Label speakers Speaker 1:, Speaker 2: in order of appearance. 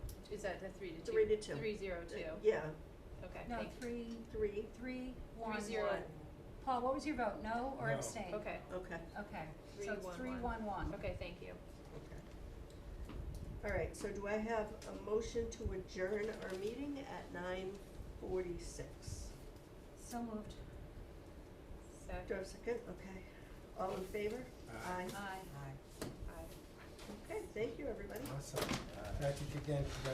Speaker 1: is that the three to two?
Speaker 2: Three to two.
Speaker 1: Three zero two,
Speaker 2: Uh, Yeah,
Speaker 1: okay,
Speaker 3: No,
Speaker 1: thank-
Speaker 3: three,
Speaker 2: three,
Speaker 3: three, one, one.
Speaker 1: zero.
Speaker 3: Paul, what was your vote, no or
Speaker 4: No.
Speaker 3: abstain?
Speaker 1: okay,
Speaker 2: okay,
Speaker 3: Okay,
Speaker 1: Three,
Speaker 3: so it's
Speaker 1: one,
Speaker 3: three,
Speaker 1: one.
Speaker 3: one, one.
Speaker 1: okay, thank you.
Speaker 2: okay. All right, so do I have a motion to adjourn our meeting at nine forty-six?
Speaker 3: So moved,
Speaker 2: Do
Speaker 1: Second,
Speaker 2: I have a second? Okay. All in favor?
Speaker 4: Aye.
Speaker 3: aye.
Speaker 2: Okay, thank you, everybody.
Speaker 4: Awesome. Uh, Thank you again for that.